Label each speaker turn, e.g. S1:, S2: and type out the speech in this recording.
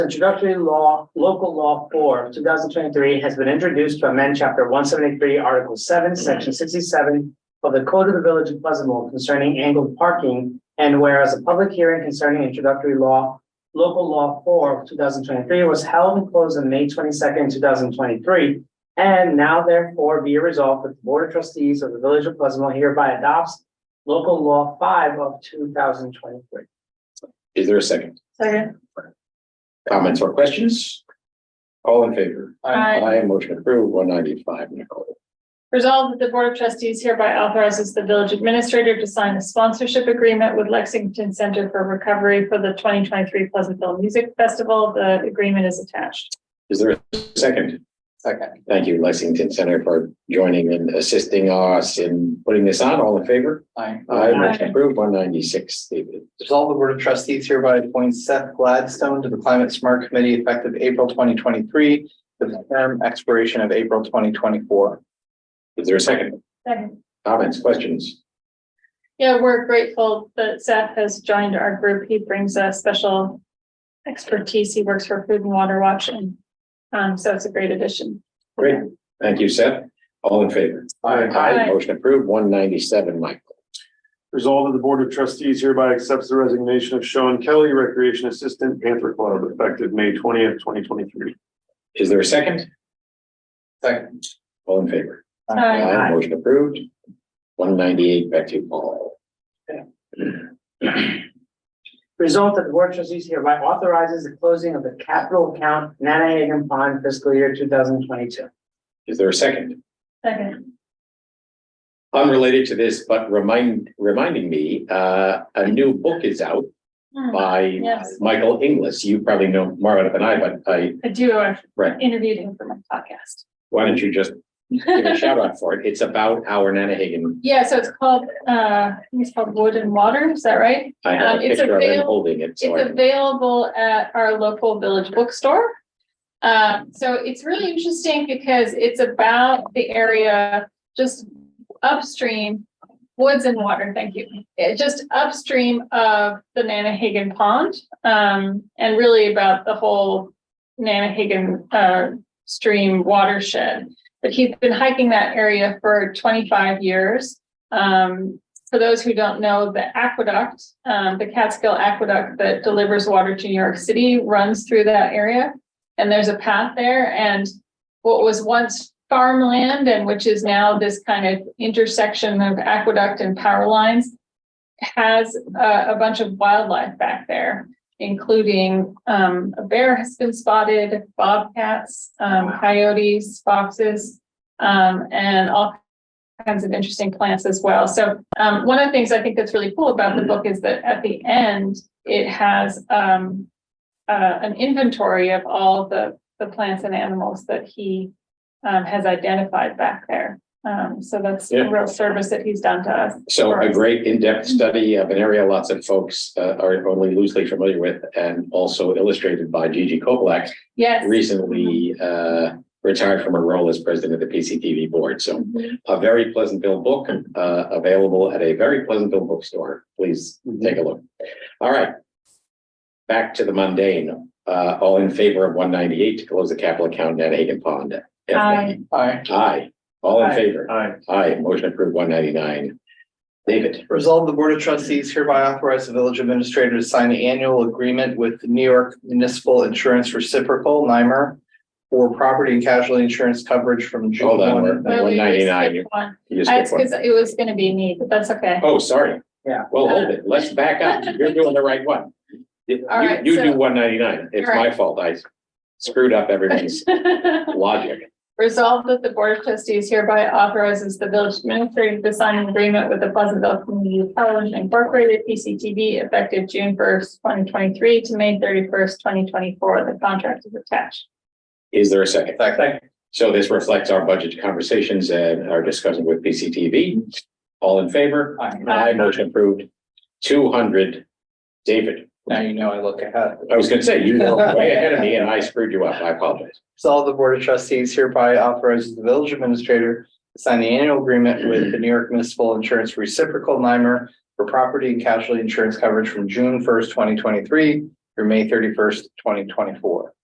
S1: Introductory law, local law four, two thousand twenty-three has been introduced to amend chapter one seventy-three, article seven, section sixty-seven of the Code of the Village of Pleasantville concerning angled parking, and whereas a public hearing concerning introductory law, local law four, two thousand twenty-three was held and closed on May twenty-second, two thousand twenty-three, and now therefore be resolved that the Board of Trustees of the Village of Pleasantville hereby adopts local law five of two thousand twenty-three.
S2: Is there a second?
S3: Second.
S2: Comments or questions? All in favor?
S3: Aye.
S2: Aye, motion approved, one ninety-five, Nicole.
S3: Resolved that the Board of Trustees hereby authorizes the village administrator to sign a sponsorship agreement with Lexington Center for Recovery for the twenty twenty-three Pleasantville Music Festival. The agreement is attached.
S2: Is there a second? Second. Thank you, Lexington Center for joining and assisting us in putting this on. All in favor?
S4: Aye.
S2: Aye, motion approved, one ninety-six, David.
S4: Resolve the Board of Trustees hereby appoints Seth Gladstone to the Climate Smart Committee effective April twenty twenty-three, the term expiration of April twenty twenty-four.
S2: Is there a second?
S3: Second.
S2: Comments, questions?
S3: Yeah, we're grateful that Seth has joined our group. He brings a special expertise. He works for Food and Water Watch and um, so it's a great addition.
S2: Great. Thank you, Seth. All in favor? Aye,
S3: Aye.
S2: motion approved, one ninety-seven, Michael.
S5: Resolved that the Board of Trustees hereby accepts the resignation of Sean Kelly, Recreation Assistant, Panther Club, effective May twentieth, twenty twenty-three.
S2: Is there a second?
S4: Second.
S2: All in favor?
S3: Aye.
S2: Aye, motion approved. One ninety-eight, back to you, Paul.
S1: Result that the board of trustees hereby authorizes the closing of the capital account Nanahagan Pond fiscal year two thousand twenty-two.
S2: Is there a second?
S3: Second.
S2: unrelated to this, but remind, reminding me, uh, a new book is out
S3: Hmm.
S2: by
S3: Yes.
S2: Michael Inglis. You probably know more about it than I, but I,
S3: I do, I
S2: Right.
S3: interviewed him for my podcast.
S2: why don't you just give a shout out for it? It's about our Nanahagan.
S3: Yeah, so it's called, uh, I think it's called Wood and Water, is that right?
S2: I have a
S3: Um, it's
S2: picture of him
S3: avail-
S2: holding it, so I,
S3: It's available at our local village bookstore. Um, so it's really interesting because it's about the area just upstream, woods and water, thank you. It just upstream of the Nanahagan Pond, um, and really about the whole Nanahagan, uh, stream watershed. But he's been hiking that area for twenty-five years. Um, for those who don't know, the aqueduct, um, the Catskill Aqueduct that delivers water to New York City runs through that area. And there's a path there and what was once farmland and which is now this kind of intersection of aqueduct and power lines has uh, a, a bunch of wildlife back there, including, um, a bear has been spotted, bobcats, um, coyotes, foxes, um, and all kinds of interesting plants as well. So um, one of the things I think that's really cool about the book is that at the end, it has, um, uh, an inventory of all the, the plants and animals that he, um, has identified back there. Um, so that's
S2: Yeah.
S3: a real service that he's done to us. Mm-hmm.
S2: so a great in-depth study of an area lots of folks uh, are only loosely familiar with and also illustrated by Gigi Koblak,
S3: Yes.
S2: recently uh, retired from her role as president of the PCTV board. So
S3: Mhm.
S2: a very Pleasantville book, uh, available at a very Pleasantville bookstore. Please
S1: Mm-hmm.
S2: take a look. All right. Back to the mundane, uh, all in favor of one ninety-eight to close the capital account at Hagan Pond.
S3: Aye.
S4: Aye.
S2: Aye, all in
S1: Aye.
S2: favor.
S5: Aye.
S2: Aye, motion approved one ninety-nine. David,
S4: Resolve the Board of Trustees hereby authorize the village administrator to sign the annual agreement with the New York Municipal Insurance Reciprocal, NYMER, for property and casualty insurance coverage from June
S2: hold on,
S4: one.
S3: Well,
S2: one
S3: we
S2: ninety-nine,
S3: skipped one.
S2: you
S3: I-
S2: skipped
S3: It's because
S2: one.
S3: it was gonna be me, but that's okay.
S2: Oh, sorry.
S1: Yeah.
S2: Well, hold it, let's back up, you're doing the right one. You,
S3: All right,
S2: you do
S3: so-
S2: one ninety-nine, it's
S3: All
S2: my fault, I screwed up everybody's logic.
S3: Resolved that the Board of Trustees hereby authorizes the village administrator to sign an agreement with the Pleasantville Community Television Incorporated, PCTV, effective June first, twenty twenty-three to May thirty-first, twenty twenty-four. The contract is attached.
S2: Is there a second?
S4: Second.
S2: So this reflects our budget conversations and our discussion with PCTV. All in favor?
S4: Aye.
S2: Aye, motion approved. Two hundred. David,
S4: Now you know I look ahead.
S2: I was gonna say, you were way ahead of me and I screwed you up. I apologize.
S4: Resolve the Board of Trustees hereby authorizes the village administrator to sign the annual agreement with the New York Municipal Insurance Reciprocal NYMER for property and casualty insurance coverage from June first, twenty twenty-three through May thirty-first, twenty twenty-four.